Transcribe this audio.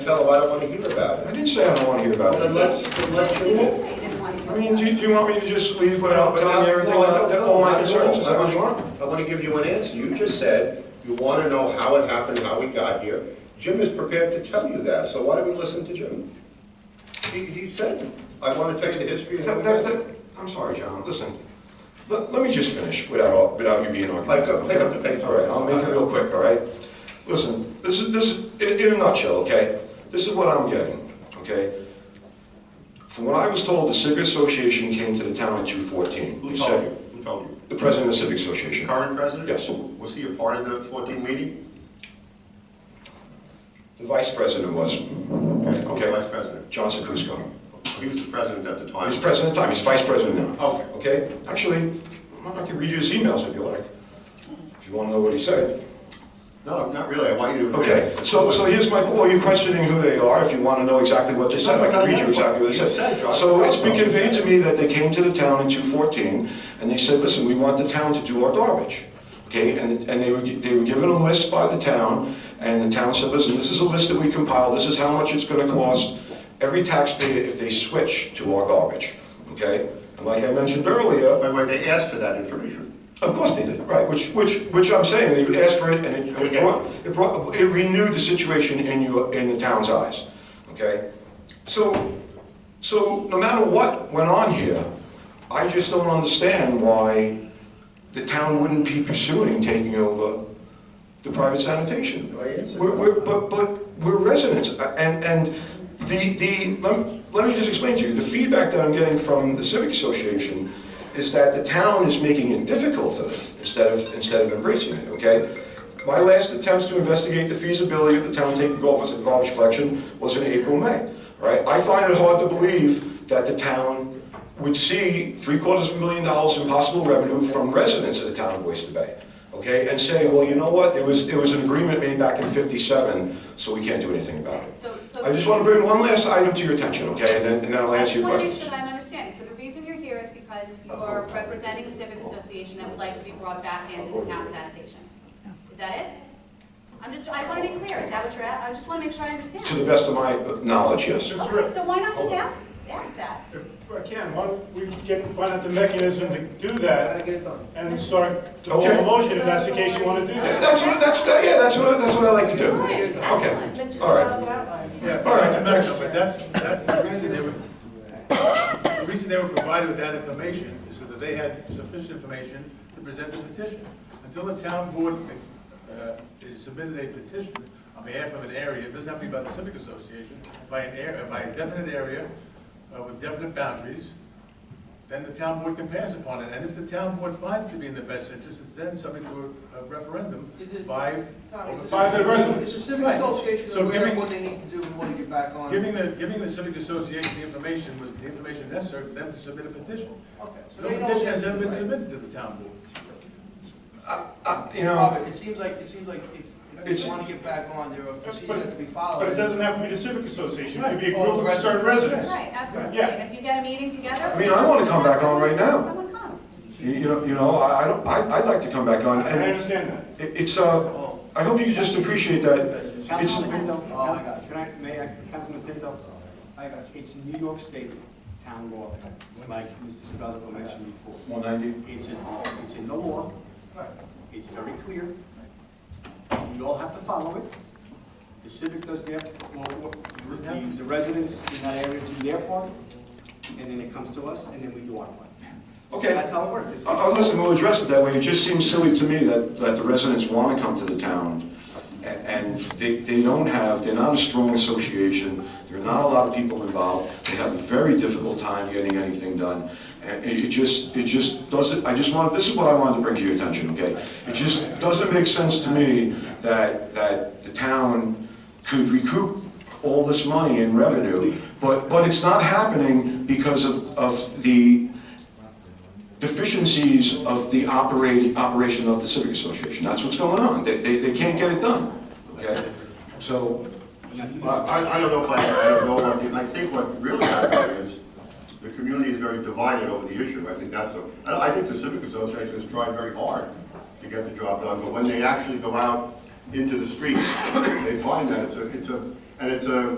tell them I don't want to hear about I it. didn't say I don't want to hear about Then let's, it. then let's You did remove. say you didn't want to hear I mean, about do it. do you want me to just leave without telling you everything, No, I don't that- know. all my Not at concerns, is that what you I want? wanna- I want to give you an answer. You just said you want to know how it happened, how we got here. Jim is prepared to tell you that, so why don't we listen to Jim? He, he said, I want to tell you the history of how we got That- that- here. that- I'm sorry, John, listen, let, let me just finish without, all- without you being argumentative. Mike, pick up the okay? pace. All right, I'll make it real quick, all right? Listen, this is, this, is- in, in a nutshell, okay? This is what I'm getting, okay? From what I was told, the Civic Association came to the town in 214. Who You told said- you? Who told you? The president of the Civic Association. Current president? Yes. Was he a part of the 14 meeting? The vice president was Okay. Vice president. John Sekusko. He was the president at the time. He's president at the time, he's vice president now. Okay. Okay, actually, I can read you his emails if you like, if you want to know what he said. No, not really. I want you to. Okay, so, so here's my, well, you're questioning who they are, if you want to know exactly what they said, I can read you exactly what they said. So it's been conveyed to me that they came to the town in 214, and they said, listen, we want the town to do our garbage. Okay, and, and they were, gi- they were given a list by the town, and the town said, listen, this is a list that we compiled, this is how much it's gonna cost every taxpayer if they switch to our garbage, okay? And like I mentioned earlier, By the way, they asked for that information. of course they did, right, which, which, which I'm saying, they asked for it, and it- it brought, it brought, it renewed the situation in your, in the town's eyes, okay? So, so no matter what went on here, I just don't understand why the town wouldn't be pursuing taking over the private sanitation. Well, yes. We're, we're, but, but we're residents, uh, and, and the, the, lem- let me just explain to you, the feedback that I'm getting from the Civic Association is that the town is making it difficult for them, instead of, instead of embracing it, okay? My last attempts to investigate the feasibility of the town taking garbage, garbage collection was in April, May, right? I find it hard to believe that the town would see three quarters of a million dollars in possible revenue from residents of the town of Oyster Bay, okay? And say, well, you know what, it was, it was an agreement made back in fifty-seven, so we can't do anything about it. So- so- I just want to bring one last item to your attention, okay, and then, and then I'll I answer just your want to make question. Uh-huh. sure that I'm understanding. So the reason you're here is because you are representing a civic association that would like to be brought back into the town sanitation. Is that it? I'm just, I want to be clear. Is that what you're at? I just want to make sure I understand. To the best of my knowledge, yes. Okay, so why not just ask, ask that? If I can, why don't we get, find out the mechanism to do that and start the whole Okay. motion if that's the case you want to do that. That's what, that's, yeah, that's what, that's what I like to do. All right, excellent. Okay, all right. Yeah, All right. but that's- But that's, that's the reason they were, the reason they were provided with that information is so that they had sufficient information to present the petition. Until the town board, uh, is submitted a petition on behalf of an area, it doesn't have to be by the civic association, by an area, by a definite area, uh, with definite boundaries, then the town board can pass upon it. And if the town board finds it to be in the best interest, it's then subject to a a referendum Is it- by, Tom, is by the the residents. Is the civic Right. association So aware of giving- what they need to do and want to get back on? Giving the, giving the civic association the information was the information necessary for them to submit a petition. Okay, so No they know petition what has they ever do, been right? submitted to the town board. Uh, You know, Robert, it seems like, it seems like if, if It's- you want to get back on, there are procedures But- that have to be followed. But it and- doesn't have to be the civic association, it could be a All group of concerned residents. Right, absolutely. Yeah. And if you get a meeting together. I mean, I wanna come back on right now. Someone come. you you know, you know, I I don't, I, I'd like to come back on, I and it- understand that. it's, uh, I hope you just appreciate that. It's, Councilman Pinto, Oh, I got you. can I, may I, Councilman Pinto? I got you. It's New York State town law, like Mr. Sebelico mentioned before. 190? It's in, it's in the law, Right. it's very clear. You all have to follow it. The civic does their, well, the- the residents in that area do their part, and then it comes to us, and then we do our part. Okay. That's how it works. It's- Uh, uh, listen, we'll address it that way, it just seems silly to me that, that the residents want to come to the town, a- and they, they don't have, they're not a strong association, there are not a lot of people involved, they have a very difficult time getting anything done, and it it just, it just doesn't, I just want, this is what I wanted to bring to your attention, okay? It just doesn't make sense to me that, that the town could recoup all this money in revenue, but, but it's not happening because of, of the deficiencies of the operating, operation of the civic association. That's what's going on. They, they, they can't get it done, okay? So, Well, I, I don't know if I, I don't know what, the- I think what really happened is, the community is very divided over the issue, I think that's, a- I I think the civic association has tried very hard to get the job done, but when they actually go out into the street, they find that it's a, it's a, and it's a